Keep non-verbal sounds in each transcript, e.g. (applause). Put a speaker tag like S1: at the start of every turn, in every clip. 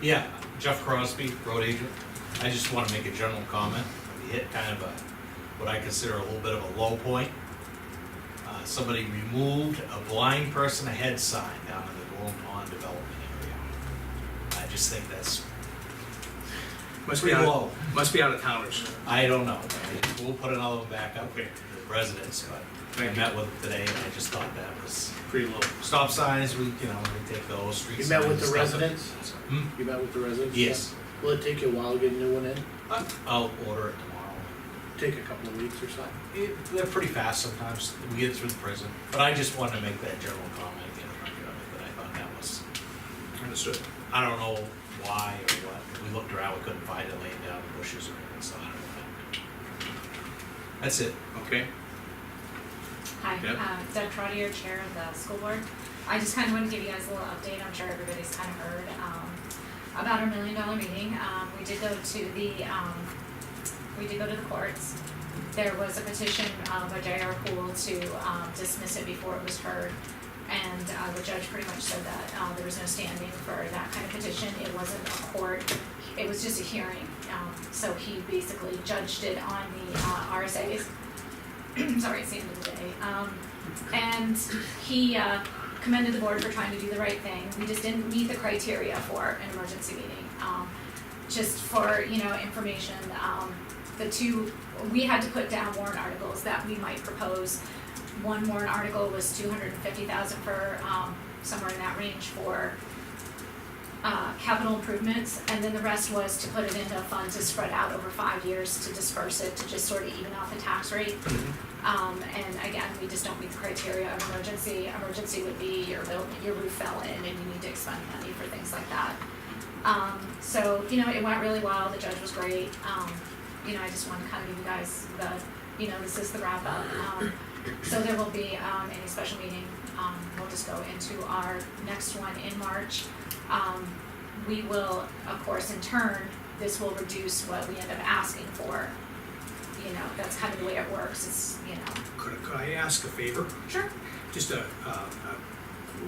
S1: Yeah, Jeff Crosby, road agent. I just want to make a general comment. We hit kind of a, what I consider a little bit of a low point. Uh, Somebody removed a blind person ahead sign down in the Golden Pond Development area. I just think that's
S2: Must be
S1: pretty
S2: out,
S1: low.
S2: must be out of towners.
S1: I don't know. We'll put another one back up here, the residents, but I
S2: Thank you.
S1: met with them today and I just thought that was,
S2: Pretty low.
S1: stop signs, we, you know, we take those streets.
S3: You met with the residents?
S1: Hmm?
S3: You met with the residents?
S1: Yes.
S3: Yeah. Will it take you a while to get a new one in?
S1: I- I'll order it tomorrow.
S3: Take a couple of weeks or something?
S1: It- They're pretty fast sometimes, we get through the prison, but I just wanted to make that general comment again, that I thought that was,
S2: Understood.
S1: I don't know why or what, we looked around, we couldn't find it laying down in bushes or anything, so I don't know. That's it.
S2: Okay.
S4: Hi,
S2: Yep.
S4: um, Deb Trotter, Chair of the School Board. I just kind of wanted to give you guys a little update, I'm sure everybody's kind of heard, um, about our million dollar meeting. Um, we did go to the, um, we did go to the courts. There was a petition, uh, by J.R. Poole to, um, dismiss it before it was heard. And, uh, the judge pretty much said that, uh, there was no standing for that kind of petition, it wasn't a court, it was just a hearing. Um, so he basically judged it on the, uh, RSA's. (clears throat) sorry, it's the end of the day. Um, and he uh, commended the board for trying to do the right thing. We just didn't meet the criteria for an emergency meeting. Um, just for you know information, um, the two we had to put down warrant articles that we might propose. One warrant article was two hundred and fifty thousand for um, somewhere in that range for uh, capital improvements, and then the rest was to put it into a fund to spread out over five years to disperse it, to just sort of even out the tax rate. Um, and again, we just don't meet the criteria of emergency. Emergency would be your bill, your roof fell in and you need to expend money for things like that. Um, so, you know, it went really well, the judge was great, um, you know, I just wanna kind of give you guys the, you know, this is the wrap up. Um, so there will be, um, any special meeting, um, we'll just go into our next one in March. Um, we will, of course, in turn, this will reduce what we end up asking for. You know, that's kind of the way it works, it's, you know,
S2: Could, could I ask a favor?
S4: sure,
S2: Just a, uh, uh,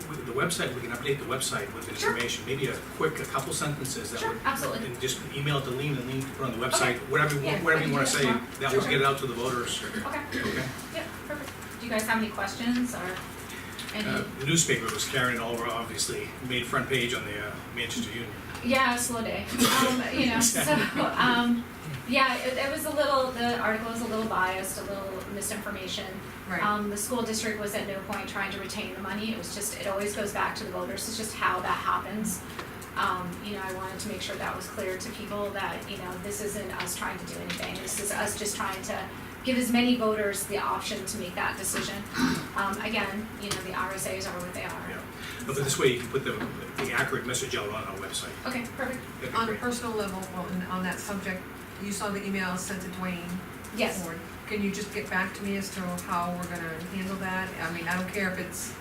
S2: with the website, we can update the website with the
S4: Sure.
S2: information. Maybe a quick, a couple sentences that
S4: sure,
S2: would,
S4: absolutely.
S2: and just email it to Lean and Lean can put on the website,
S4: Okay.
S2: whatever, you
S4: Yeah,
S2: want- whatever
S4: I
S2: you
S4: can
S2: wanna
S4: do that
S2: say.
S4: tomorrow.
S2: That will
S4: Sure.
S2: get it out to the voters.
S4: Okay,
S2: Okay.
S4: yeah, perfect. Do you guys have any questions or
S2: Uh,
S4: any?
S2: The newspaper was carrying it all over, obviously, made front page on the uh, Manchester Union.
S4: Yeah,
S2: (laughs)
S4: slow day. Um, you know, so, um, yeah, it, it was a little, the article was a little biased, a little misinformation.
S5: Right,
S4: Um, the school district was at no point trying to retain the money. It was just, it always goes back to the voters. It's just how that happens. Um, you know, I wanted to make sure that was clear to people that, you know, this isn't us trying to do anything. This is us just trying to give as many voters the option to make that decision. Um, again, you know, the RSAs are what they
S2: Yeah.
S4: are.
S2: But this way, you can put the, the accurate message out on our website.
S4: Okay, perfect.
S2: That'd be
S5: on a
S2: great.
S5: personal level, Wilton, on that subject, you saw the email I sent to Dwayne.
S4: Yes.
S5: Ford. Can you just get back to me as to how we're gonna handle that? I mean, I don't care if it's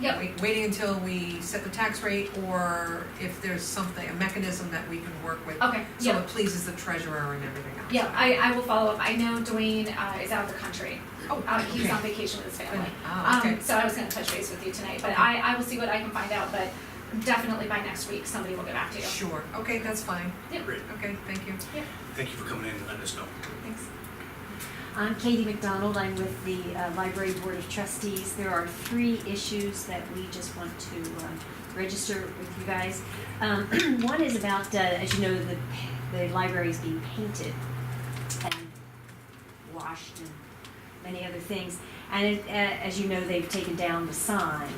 S4: Yep.
S5: wait- waiting until we set the tax rate, or if there's something, a mechanism that we can work with.
S4: Okay,
S5: So
S4: yeah,
S5: it pleases the treasurer and everything else.
S4: yeah, I, I will follow up, I know Dwayne, uh, is out of the country,
S5: Oh,
S4: uh, he's
S5: okay.
S4: on vacation with his family.
S5: Oh, okay.
S4: Um, so I was gonna touch base with you tonight, but
S5: Okay.
S4: I, I will see what I can find out, but definitely by next week, somebody will get back to you.
S5: Sure, okay, that's fine.
S4: Yeah.
S2: Great.
S5: Okay, thank you.
S2: Thank you for coming in and letting us know.
S4: Thanks.
S6: I'm Katie McDonald, I'm with the uh, Library Board of Trustees. There are three issues that we just want to um, register with you guys. Um, (clears throat) One is about, uh, as you know, the, the library is being painted and washed and many other things. And it- a- as you know, they've taken down the sign,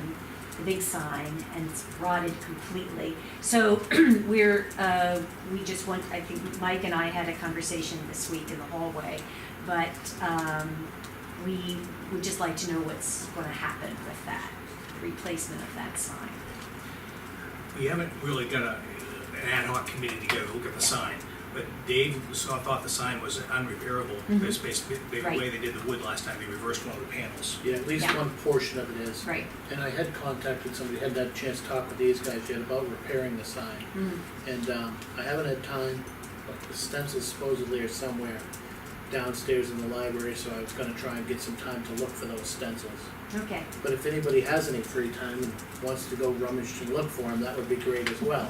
S6: the big sign, and it's rotted completely. So (clears throat) we're, uh, we just want, I think Mike and I had a conversation this week in the hallway, but um, we would just like to know what's gonna happen with that, replacement of that sign.
S2: We haven't really got a, an ad hoc committee together to look at the sign, but Dave saw, thought the sign was unrepairable.
S6: Mhm.
S2: That's basically the
S6: Right.
S2: way they did the wood last time, they reversed one of the panels.
S3: Yeah, at least
S6: Yeah.
S3: one portion of it is.
S6: Right.
S3: And I had contacted somebody, hadn't had a chance to talk with these guys yet about repairing the sign.
S6: Mm.
S3: And, um, I haven't had time, but the stencils supposedly are somewhere downstairs in the library, so I was gonna try and get some time to look for those stencils.
S6: Okay,
S3: But if anybody has any free time and wants to go rummage and look for them, that would be great as well.